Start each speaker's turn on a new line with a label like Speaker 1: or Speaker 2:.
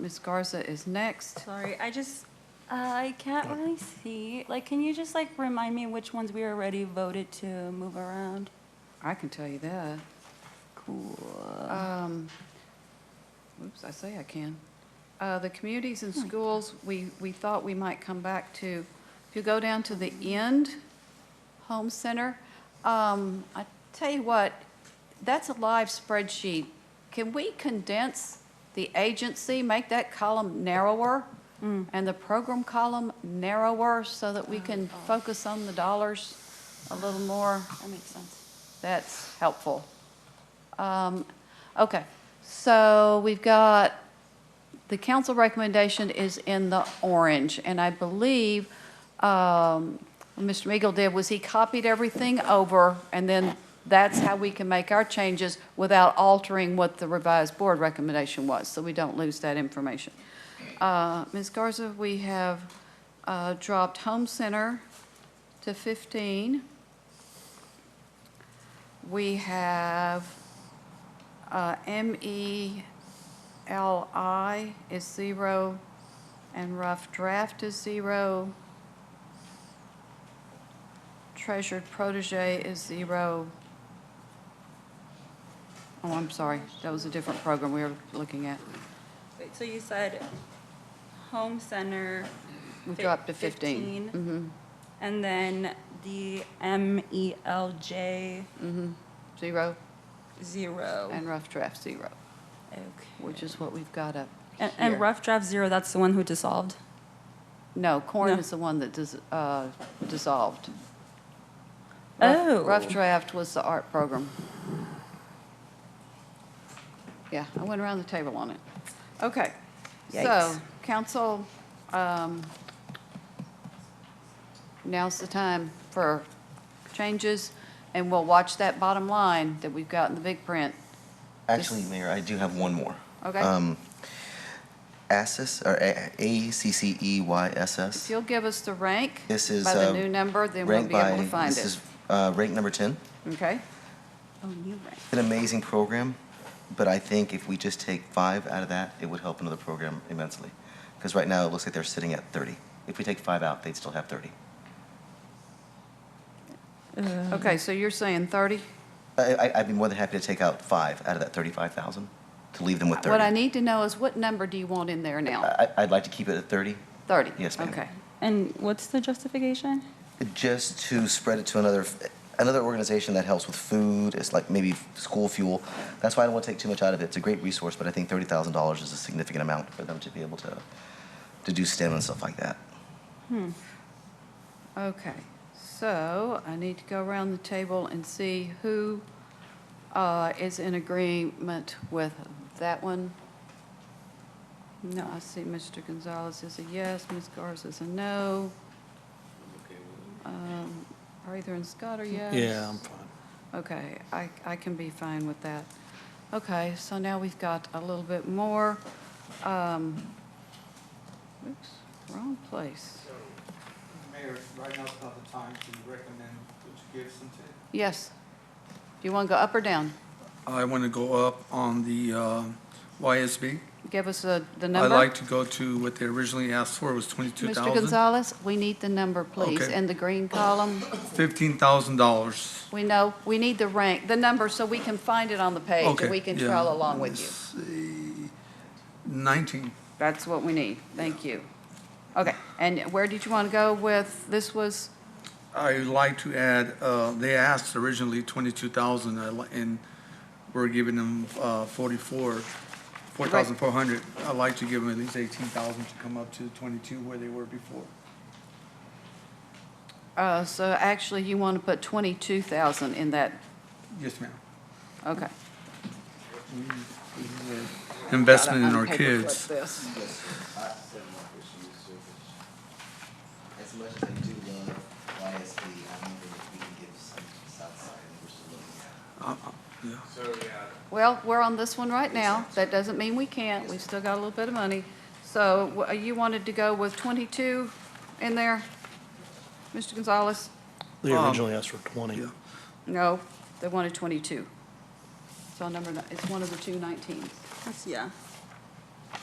Speaker 1: Ms. Garza is next.
Speaker 2: Sorry, I just, uh, I can't really see. Like, can you just like remind me which ones we already voted to move around?
Speaker 1: I can tell you that.
Speaker 2: Cool.
Speaker 1: Um, Oops, I say I can. Uh, The communities and schools, we, we thought we might come back to, if you go down to the end, home center, um, I tell you what, that's a live spreadsheet. Can we condense the agency, make that column narrower? And the program column narrower so that we can focus on the dollars a little more?
Speaker 2: That makes sense.
Speaker 1: That's helpful. Um, Okay, so we've got, the council recommendation is in the orange, and I believe um, what Mr. Meagle did was he copied everything over, and then that's how we can make our changes without altering what the revised board recommendation was, so we don't lose that information. Uh, Ms. Garza, we have uh, dropped home center to 15. We have uh, MELI is zero, and rough draft is zero. Treasured protege is zero. Oh, I'm sorry, that was a different program we were looking at.
Speaker 2: Wait, so you said home center.
Speaker 1: We
Speaker 2: fif-
Speaker 1: dropped to Mm-hmm. 15.
Speaker 2: And then the M E L J
Speaker 1: Zero,
Speaker 2: zero.
Speaker 1: and rough draft zero,
Speaker 2: Okay.
Speaker 1: which is what we've got up
Speaker 2: And,
Speaker 1: here.
Speaker 2: and rough draft zero, that's the one who dissolved?
Speaker 1: No, corn
Speaker 2: No.
Speaker 1: is the one that dis- uh, dissolved. Rough-
Speaker 2: Oh.
Speaker 1: Rough Draft was the art program. Yeah, I went around the table on it. Okay. So,
Speaker 2: Yikes.
Speaker 1: council, um, now's the time for changes, and we'll watch that bottom line that we've got in the big print.
Speaker 3: Actually, Mayor, I do have one more.
Speaker 1: Okay.
Speaker 3: Um, ACCESS, or A- E A-C-C-E-Y-S-S.
Speaker 1: If you'll give us the rank by
Speaker 3: This is,
Speaker 1: the
Speaker 3: uh,
Speaker 1: new number, then we'll
Speaker 3: ranked
Speaker 1: be able
Speaker 3: by-
Speaker 1: to find
Speaker 3: This
Speaker 1: it.
Speaker 3: is uh, ranked number 10.
Speaker 1: Okay?
Speaker 2: Oh, you right.
Speaker 3: An amazing program, but I think if we just take five out of that, it would help another program immensely. Because right now, it looks like they're sitting at 30. If we take five out, they'd still have 30.
Speaker 1: Okay, so you're saying 30?
Speaker 3: I- I- I'd be more than happy to take out five out of that 35,000, to leave them with 30.
Speaker 1: What I need to know is what number do you want in there now?
Speaker 3: I- I'd like to keep it at 30,
Speaker 1: 30?
Speaker 3: Yes, ma'am.
Speaker 1: Okay.
Speaker 2: And what's the justification?
Speaker 3: just to spread it to another another organization that helps with food it's like maybe school fuel that's why i don't want to take too much out of it it's a great resource but i think $30000 is a significant amount for them to be able to to do stem and stuff like that
Speaker 1: Okay, so I need to go around the table and see who uh, is in agreement with that one. No, I see Mr. Gonzalez is a yes, Ms. Garza is a no. Um, Arthur and Scott are yes.
Speaker 4: Yeah, I'm fine.
Speaker 1: Okay, I, I can be fine with that. Okay, so now we've got a little bit more. um, Oops, wrong place.
Speaker 5: Mayor, right now's not the time to recommend what you give some to.
Speaker 1: Yes. Do you want to go up or down?
Speaker 4: I want to go up on the uh, YSB.
Speaker 1: Give us the, the
Speaker 4: I'd
Speaker 1: number.
Speaker 4: like to go to what they originally asked for was twenty-two
Speaker 1: Mr.
Speaker 4: thousand,
Speaker 1: Gonzalez, we need the number, please,
Speaker 4: Okay.
Speaker 1: in the green column.
Speaker 4: fifteen thousand dollars.
Speaker 1: We know, we need the rank, the number, so we can find it on the page,
Speaker 4: Okay,
Speaker 1: and we can
Speaker 4: yeah.
Speaker 1: trail along with you.
Speaker 4: Nineteen,
Speaker 1: That's what we need. Thank you. Okay, and where did you want to go with, this was,
Speaker 4: I'd like to add, uh, they asked originally twenty-two thousand uh, and we're giving them uh, forty-four, four thousand four hundred. I'd like to give them at least eighteen thousand to come up to twenty-two where they were before.
Speaker 1: uh, so actually you want to put 22,000 in that,
Speaker 4: Yes, ma'am.
Speaker 1: okay.
Speaker 4: Investment in
Speaker 1: Gotta
Speaker 4: our
Speaker 1: unpaperclip
Speaker 4: kids.
Speaker 1: this.
Speaker 3: as much as i do love ysb i don't think we can give some southside we're still looking at
Speaker 4: Uh,
Speaker 1: Well, we're on this one right now. That doesn't mean we can't. We've still got a little bit of money. So wh- you wanted to go with 22 in there, Mr. Gonzalez?
Speaker 6: They
Speaker 4: Um,
Speaker 6: originally asked for 20.
Speaker 4: yeah.
Speaker 1: No, they wanted 22. So number, ni- it's one of the two 19s.
Speaker 2: That's, yeah.